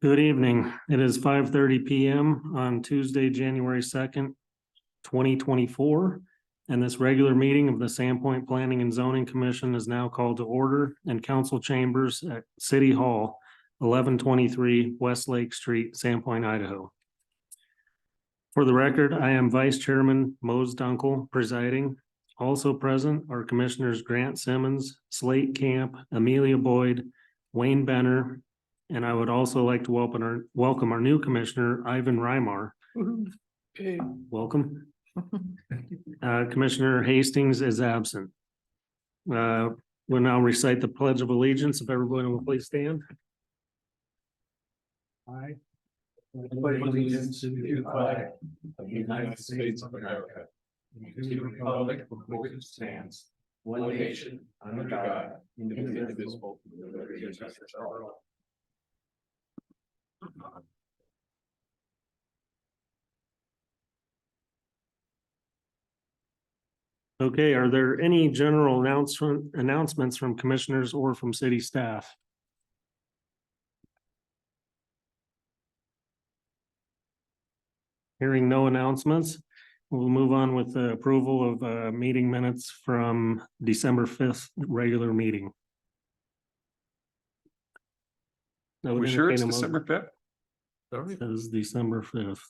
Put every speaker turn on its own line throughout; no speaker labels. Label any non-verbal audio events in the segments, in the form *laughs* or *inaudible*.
Good evening. It is five thirty PM on Tuesday, January second, twenty twenty-four. And this regular meeting of the Sandpoint Planning and Zoning Commission is now called to order in council chambers at City Hall, eleven twenty-three West Lake Street, Sandpoint, Idaho. For the record, I am Vice Chairman Mose Dunkel presiding. Also present are Commissioners Grant Simmons, Slate Camp, Amelia Boyd, Wayne Benner, and I would also like to welcome our, welcome our new commissioner, Ivan Reimar. Welcome. Uh, Commissioner Hastings is absent. Uh, we'll now recite the pledge of allegiance. If everyone will please stand.
I pledge allegiance to the flag of the United States of America. and To the republic for which it stands, one nation, under God, indivisible, with liberty and justice for all.
Okay, are there any general announcement, announcements from commissioners or from city staff? Hearing no announcements, we'll move on with the approval of uh meeting minutes from December fifth regular meeting. I would
We sure it's
entertain a mo-
December fifth? Sorry.
Says December fifth.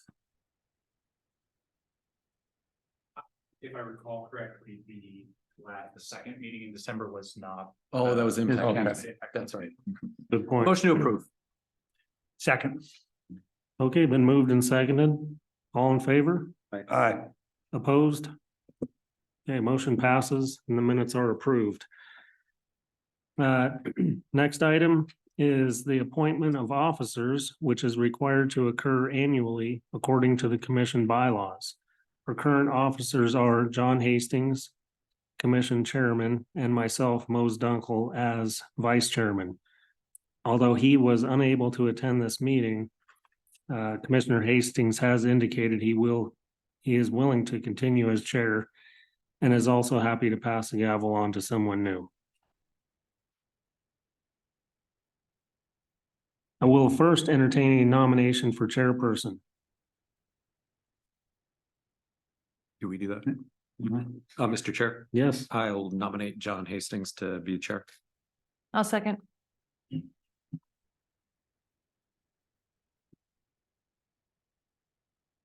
if I recall correctly, the last, the second meeting in December was not.
Oh, that was
uh,
impact.
impacted.
That's right.
Good point.
Motion to approve.
Second.
Okay, been moved and seconded. All in favor?
Aye.
Opposed? Okay, motion passes and the minutes are approved. Uh, *clears throat* next item is the appointment of officers, which is required to occur annually according to the commission bylaws. Our current officers are John Hastings, Commission Chairman, and myself, Mose Dunkel, as Vice Chairman. Although he was unable to attend this meeting, uh, Commissioner Hastings has indicated he will he is willing to continue as chair and is also happy to pass the gavel on to someone new. I will first entertain a nomination for chairperson.
Do we do that? Uh, Mr. Chair,
Yes.
I'll nominate John Hastings to be chair.
I'll second.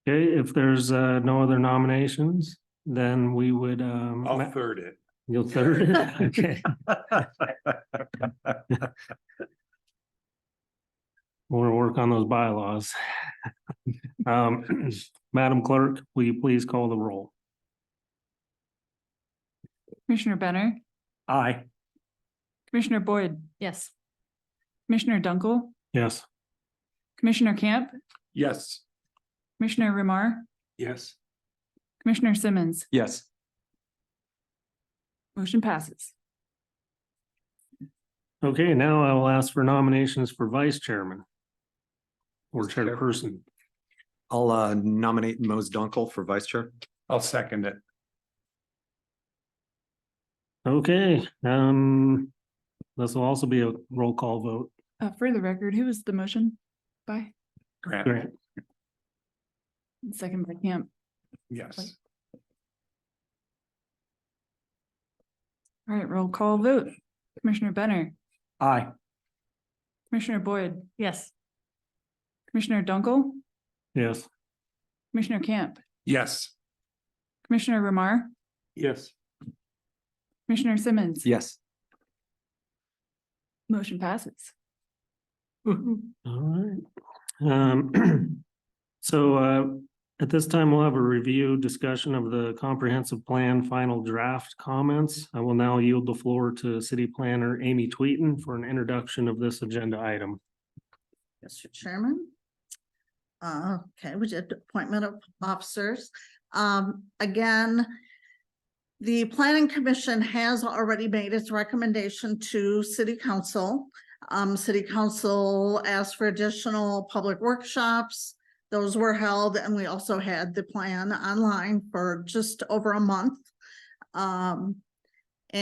Okay, if there's uh no other nominations, then we would um.
Oh.
I'll third it.
You'll
*laughs*
third. it? Okay.
*laughs*
We'll work on those bylaws. Um, *clears throat* Madam Clerk, will you please call the roll?
Commissioner Benner,
Aye.
Commissioner Boyd,
Yes.
Commissioner Dunkel,
Yes.
Commissioner Camp,
Yes.
Commissioner Remar,
Yes.
Commissioner Simmons.
Yes.
Motion passes.
Okay, now I will ask for nominations for vice chairman. Or chairperson.
I'll uh, nominate Mose Dunkel for vice chair.
I'll second it.
Okay, um, this will also be a roll call vote.
Uh, for the record, who was the motion by?
Grant,
Grant,
Second by Camp.
yes.
All right, roll call vote. Commissioner Benner. Aye. Commissioner Boyd,
Yes.
Commissioner Dunkel,
yes.
Commissioner Camp,
Yes.
Commissioner Remar,
Yes.
Commissioner Simmons.
Yes.
Motion passes.
All right. Um, *clears throat* so, uh, at this time, we'll have a review discussion of the comprehensive plan final draft comments. I will now yield the floor to city planner Amy Tweetin for an introduction of this agenda item.
Mr. Chairman. Uh, okay, we did appointment of officers. Um, again, the planning commission has already made its recommendation to city council. Um, city council asked for additional public workshops. Those were held and we also had the plan online for just over a month. Um,